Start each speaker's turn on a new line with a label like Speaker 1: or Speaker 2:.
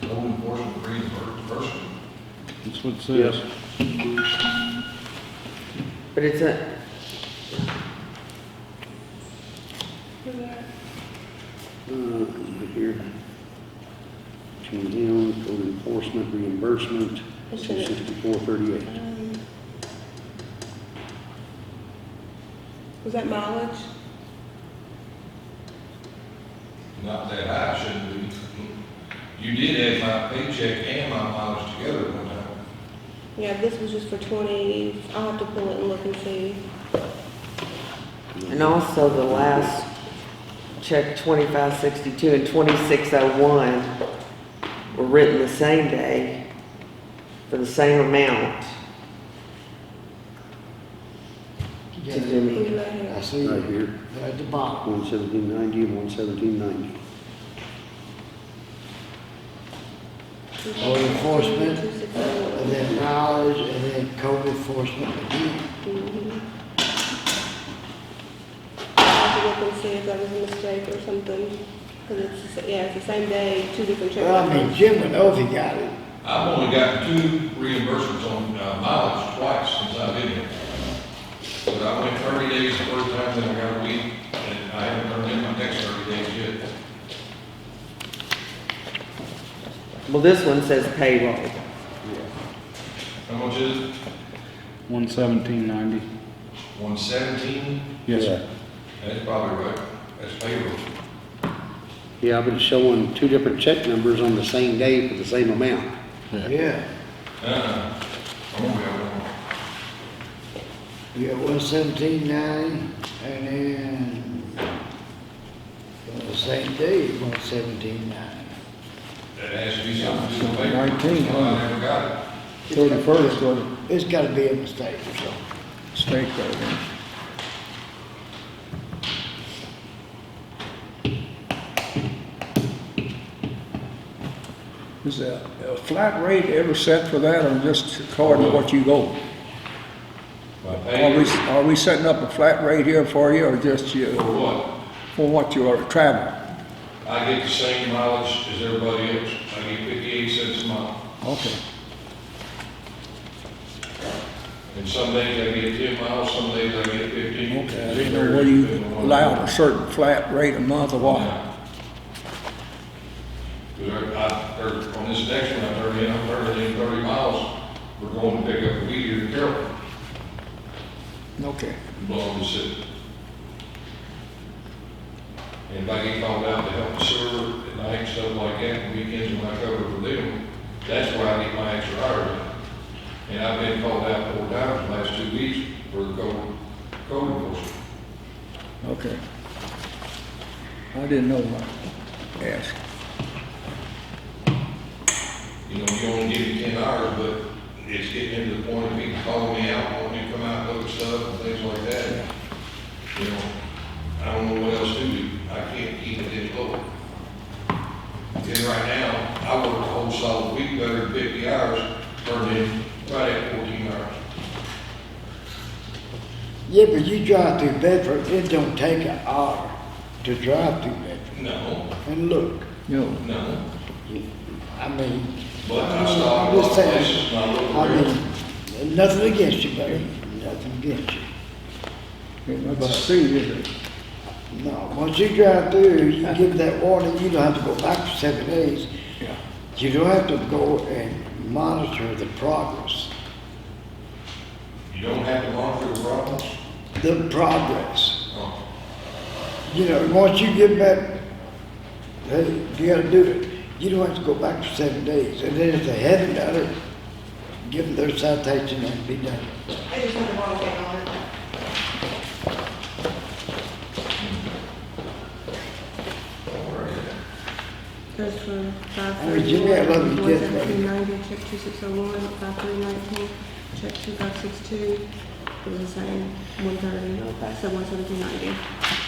Speaker 1: portion of reimbursement.
Speaker 2: That's what it says.
Speaker 3: But it's a,
Speaker 4: Uh, here. Came down, code enforcement reimbursement,
Speaker 5: It's in it.
Speaker 4: sixty-four thirty-eight.
Speaker 5: Um, Was that mileage?
Speaker 1: Not that I shouldn't be. You did add my paycheck and my mileage together one time.
Speaker 5: Yeah, this was just for twenty, I'll have to pull it and look and see.
Speaker 3: and also the last check, twenty-five sixty-two and twenty-six oh one were written the same day for the same amount. To
Speaker 5: Who's
Speaker 3: Jimmy.
Speaker 5: not
Speaker 6: I
Speaker 5: here?
Speaker 6: see,
Speaker 4: Right
Speaker 6: they're
Speaker 4: here,
Speaker 6: at the bottom.
Speaker 4: one seventeen ninety and one seventeen ninety.
Speaker 6: Code enforcement,
Speaker 5: 2601.
Speaker 6: and then mileage, and then code enforcement again.
Speaker 5: Mhm. I'll have to look and see if that was a mistake or something, because it's, the sa- yeah, it's the same day, two different check
Speaker 6: Well, I mean,
Speaker 5: records.
Speaker 6: Jim would know if he got it.
Speaker 1: I've only got two reimbursements on uh, mileage twice since I've been here. But I went thirty days the first time, then I got a week, and I haven't turned in my next thirty days yet.
Speaker 3: Well, this one says payroll.
Speaker 1: How much is it?
Speaker 2: One seventeen ninety.
Speaker 1: One seventeen?
Speaker 2: Yes, sir.
Speaker 1: That's probably right. That's payroll.
Speaker 4: Yeah, I've been showing two different check numbers on the same day for the same amount.
Speaker 6: Yeah,
Speaker 1: Uh-uh. I'm gonna be out of one.
Speaker 6: you got one seventeen ninety, and then on the same day, one seventeen ninety.
Speaker 1: That has to be something to do with
Speaker 2: Something
Speaker 1: paper.
Speaker 2: nineteen, huh?
Speaker 1: Well, I never got it.
Speaker 2: Thirty-first was a
Speaker 6: It's gotta be a mistake or something.
Speaker 2: mistake there.
Speaker 7: Is a, a flat rate ever set for that, or just according to what you go?
Speaker 1: My
Speaker 7: Are
Speaker 1: pay
Speaker 7: we, are we setting up a flat rate here for you, or just you,
Speaker 1: for what?
Speaker 7: for what you are traveling?
Speaker 1: I get the same mileage as everybody else. I get fifty-eight cents a mile.
Speaker 7: Okay,
Speaker 1: And some days I get ten miles, some days I get fifteen.
Speaker 7: okay, I didn't know whether you allowed a certain flat rate a month or what.
Speaker 1: But I, or on this next one, I turned in, I'm turning in thirty miles. We're going to pick up a weed here in Carroll,
Speaker 7: Okay,
Speaker 1: blowing the city. And if I get called out to help the sewer at night, stuff like that, weekends when I cover for them, that's where I get my extra hours. in. And I've been called out four times the last two weeks for the code, code enforcement.
Speaker 7: okay. I didn't know what to ask.
Speaker 1: You know, you only give me ten hours, but it's getting to the point of people calling me out, wanting me to come out and look at stuff and things like that. You know, I don't know what else to do. I can't keep it this low. And right now, I work a whole solid week, better than fifty hours, turned in right at fourteen hours.
Speaker 6: Yeah, but you drive through Bedford, it don't take an hour to drive through Bedford.
Speaker 1: No,
Speaker 6: And look,
Speaker 7: No,
Speaker 1: no,
Speaker 6: I mean,
Speaker 1: but I
Speaker 6: I'm
Speaker 1: stop at a lot of
Speaker 6: just saying.
Speaker 1: places and I
Speaker 6: I
Speaker 1: look around.
Speaker 6: mean, nothing against you, buddy, nothing against you.
Speaker 7: it must see, is it?
Speaker 6: No, once you drive through, you give that warning, you don't have to go back for seven days.
Speaker 7: Yeah.
Speaker 6: You don't have to go and monitor the progress,
Speaker 1: You don't have to monitor the problems.
Speaker 6: the progress.
Speaker 1: Oh.
Speaker 6: You know, once you give that, hey, you gotta do it. You don't have to go back for seven days. And then if they haven't done it, give them their citation and be done.
Speaker 5: I just had the wrong thing on it. That's for five
Speaker 6: I mean, Jimmy, I love you,
Speaker 5: One
Speaker 6: kid, but-
Speaker 5: seventeen ninety, check two six oh one, five three nineteen, check two five six two, it was the same, one thirty, so one seventeen ninety.